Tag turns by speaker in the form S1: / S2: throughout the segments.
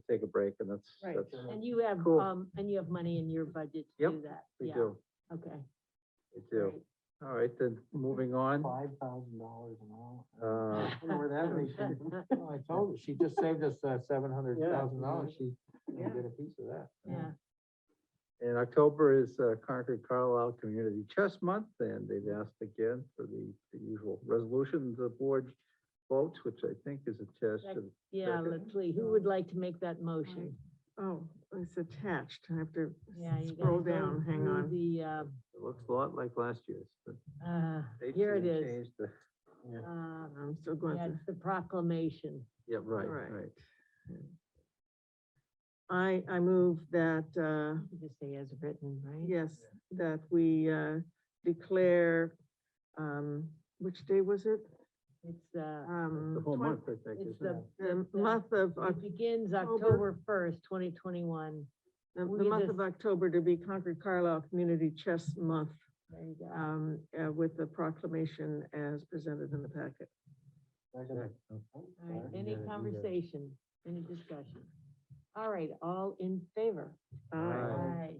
S1: to take a break and that's,
S2: Right.
S1: that's,
S3: Sure.
S4: And you have,
S1: Cool.
S4: um, and you have money in your budget to
S1: Yep,
S4: do that?
S1: we
S4: Yeah,
S1: do,
S4: Okay.
S1: we do.
S4: great.
S1: All right, then, moving on,
S3: Five thousand dollars an hour.
S1: uh,
S3: I don't know where
S4: Oh,
S3: that money came from. Well, I told her, she just saved us uh, seven hundred thousand dollars. She
S2: Yeah.
S3: didn't get a piece of that.
S4: Yeah,
S1: in October is uh, Concord Carlisle Community Chess Month, and they've asked again for the, the usual resolution, the board votes, which I think is attached to, the-
S4: yeah,
S1: Second.
S4: Leslie, who would like to make that motion?
S2: Oh, it's attached. I have to
S4: Yeah, you gotta
S2: scroll
S4: go
S2: down, hang
S4: through
S2: on.
S4: The, uh,
S1: it looks a lot like last year's, but
S4: uh,
S1: they
S4: here it
S1: changed-
S4: is.
S1: changed the-
S4: Uh,
S2: I'm still going
S4: yeah,
S2: to,
S4: it's the proclamation.
S1: Yeah, right,
S2: Right.
S1: right.
S2: I, I move that, uh,
S4: Just say as written, right?
S2: yes, that we, uh, declare, um, which day was it?
S4: It's, uh,
S2: Um,
S1: The whole
S2: twen-
S1: month, I think,
S4: it's
S1: isn't it?
S4: the,
S2: The
S4: it's, uh,
S2: month of, Oc-
S4: it begins
S2: October.
S4: October first, twenty twenty-one.
S2: the
S4: we
S2: the
S4: get
S2: month
S4: this-
S2: of October to be Concord Carlisle Community Chess Month,
S4: There you go.
S2: um, uh, with the proclamation as presented in the packet.
S1: Second.
S4: All right,
S1: Yeah,
S4: any
S1: you got it.
S4: conversation, any discussion? All right, all in favor?
S1: Aye.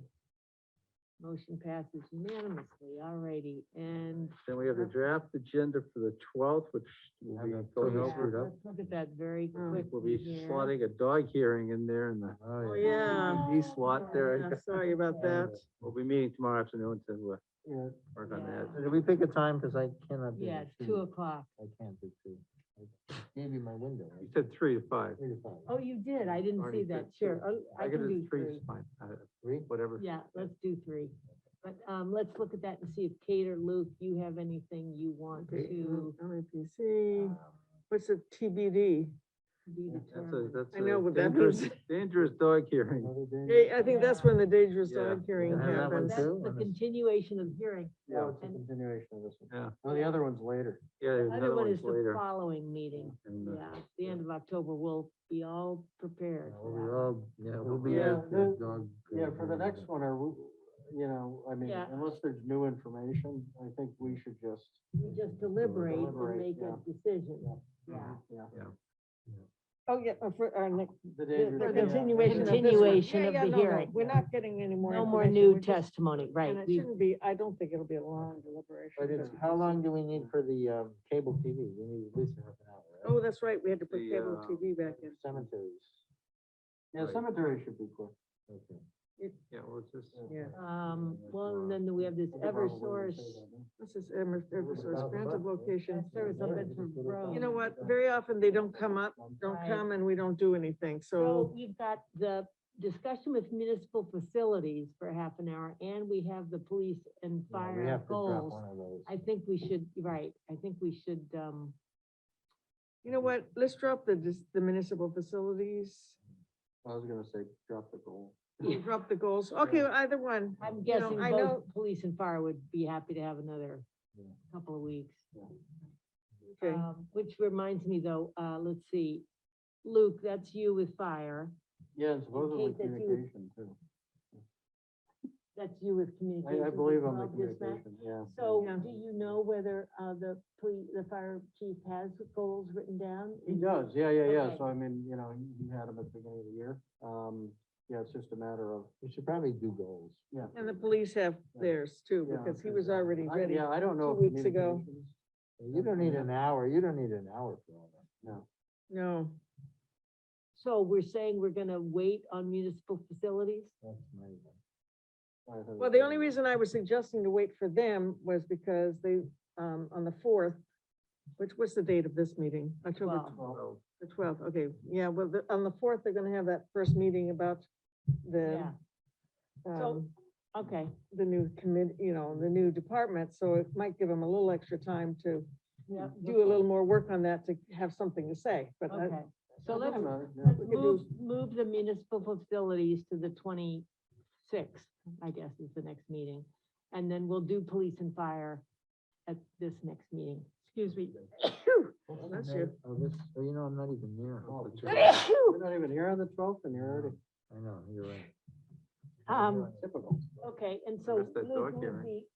S4: Motion passes unanimously, all righty, and.
S1: Then we have
S4: Uh-huh.
S1: the draft agenda for the twelfth, which will be
S3: Have a
S1: going
S3: pretty
S1: over.
S3: screwed
S4: Yeah,
S3: up.
S4: Let's look at that very
S2: Um,
S4: quickly.
S1: Mm, We'll be
S4: here.
S1: slotting a dog hearing in there in the
S2: Oh,
S3: Oh,
S2: yeah.
S1: DVD slot
S2: Yeah,
S1: there.
S2: Sorry about
S4: Yeah.
S2: that.
S1: We'll be meeting tomorrow afternoon to uh,
S3: Yeah.
S1: work on
S4: Yeah.
S1: that.
S3: Did we pick a time? Cause I cannot do.
S4: Yeah,
S3: the
S4: it's two o'clock.
S3: I can't do two. I Gave you my window.
S1: You said three to five.
S3: Three to five.
S4: Oh, you did, I didn't
S1: Already
S4: see that,
S1: said two.
S4: sure, oh, I
S1: could
S4: can do three.
S1: is fine. Uh,
S3: Three?
S1: Whatever.
S4: Yeah, let's do three. But, um, let's look at that and see if Kate or Luke, you have anything you want
S2: Okay,
S4: to
S2: E LAPC,
S4: um,
S2: what's a TBD?
S4: be
S1: That's a,
S4: determined.
S1: that's
S2: I know
S1: a
S2: what that
S1: dangerous,
S2: means.
S1: dangerous dog hearing.
S3: Another day?
S2: Hey, I think that's when the dangerous
S1: Yeah.
S2: dog hearing
S3: Yeah, that one
S2: happens.
S4: That's
S3: too,
S4: the
S3: and it's-
S4: continuation of hearing.
S3: No, it's a
S4: and-
S3: continuation of this one.
S1: Yeah.
S3: No, the other one's later.
S1: Yeah,
S4: The
S1: there's
S4: other
S1: another
S4: one
S1: one's
S4: is the
S1: later.
S4: following meeting,
S1: And, uh,
S4: yeah, the end of October, we'll be all prepared. for that.
S3: yeah,
S1: we'll
S2: be at
S3: the Yeah, for the next one, or, you know, I mean,
S4: Yeah.
S3: unless there's new information, I think we should just,
S4: We just deliberate and
S3: Deliberate,
S4: make a
S3: yeah.
S4: decision, yeah.
S3: yeah.
S2: Oh, yeah, uh, for our next.
S4: Yeah,
S3: The dangerous-
S4: for
S3: yeah.
S4: continuation of this one. Continuation of the hearing.
S2: We're not getting any more.
S4: No more
S2: information,
S4: new
S2: we're just-
S4: testimony, right,
S2: And it
S4: we-
S2: shouldn't be, I don't think it'll be a long deliberation.
S3: But it's,
S2: but-
S3: how long do we need for the, um, cable TV? We need at least half an hour,
S2: Oh,
S3: right?
S2: that's right, we had to put
S1: The,
S2: cable
S1: uh,
S2: TV back in.
S3: Cemeteries. Yeah,
S1: Right.
S3: cemetery should be quick. Okay.
S1: yeah, well, it's just,
S2: Yeah.
S4: um, well, and then we have this Eversource,
S2: This is Emer- Eversource,
S3: about
S2: grant
S3: that,
S2: of
S3: yeah?
S2: location.
S4: That's Service on Bedford Road.
S2: You know what, very often they don't come up, don't
S4: Right.
S2: come and we don't do anything,
S4: so
S2: so,
S4: we've got the discussion with municipal facilities for half an hour, and we have the police and
S3: Yeah, we
S4: fire
S3: have to drop
S4: goals.
S3: one of those.
S4: I think we should, right, I think we should, um,
S2: you know what, let's drop the, dis- the municipal facilities.
S3: I was gonna say, drop the goal.
S4: Yeah.
S2: Drop the goals, okay, either one.
S4: I'm
S2: You know,
S4: guessing
S2: I
S4: both
S2: know-
S4: police and fire would be happy to have another
S3: Yeah.
S4: couple of weeks.
S2: Okay.
S4: Um, Which reminds me though, uh, let's see, Luke, that's you with fire,
S3: Yeah, and supposedly
S4: that you-
S3: communication too.
S4: that's you with communications.
S3: I, I believe
S4: as
S3: on the
S4: well, just that.
S3: communication, yeah.
S4: So
S2: Yeah.
S4: do you know whether, uh, the police, the fire chief has goals written down?
S3: He
S4: Is
S3: does, yeah, yeah, yeah,
S4: Okay.
S3: so I mean, you know, he- he had them at the beginning of the year, um, yeah, it's just a matter of. We should probably do goals. Yeah.
S2: And the police have theirs too,
S3: Yeah,
S2: because he
S3: okay.
S2: was already
S3: I-
S2: ready.
S3: Yeah, I don't know.
S2: two
S3: if
S2: weeks ago.
S3: communications- You don't need an hour, you don't need an hour for all that. No.
S2: No,
S4: So we're saying we're gonna wait on municipal facilities?
S3: That's my.
S2: well, the only reason I was suggesting to wait for them was because they, um, on the fourth, which, what's the date of this meeting? October
S4: Twelve.
S1: well,
S2: the twelfth, okay, yeah, well, the- on the fourth, they're gonna have that first meeting about the,
S4: Yeah. So-
S2: um,
S4: Okay,
S2: the new commit, you know, the new department, so it might give them a little extra time to
S4: yeah.
S2: do a little more work on that to have something to say, but I-
S4: Okay, so let's,
S3: Let's
S4: let's
S2: do-
S4: move, move the municipal facilities to the twenty-sixth, I guess is the next meeting. And then we'll do police and fire at this next meeting. Excuse me.
S2: Bless you.
S3: Oh, this, oh, you know, I'm not even there.
S1: Oh,
S3: But
S1: the
S3: you're- You're not even here on the twelfth and you're already.
S1: I know, you're right.
S4: Um,
S3: Typical.
S4: Okay, and so
S1: Missed that
S4: Luke,
S1: dog
S4: would
S1: hearing.
S4: be-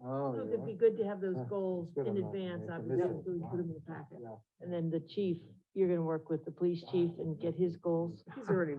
S3: Oh,
S4: Luke,
S3: you're
S4: it'd be
S3: right.
S4: good to have those
S3: Yeah,
S4: goals
S3: Ah, it's good
S4: in
S3: I'm not
S4: advance,
S3: here.
S4: obviously,
S3: Yeah.
S4: so we put them in the packet.
S3: Yeah.
S4: And then the chief, you're gonna work with the police chief and get his goals.
S2: he's already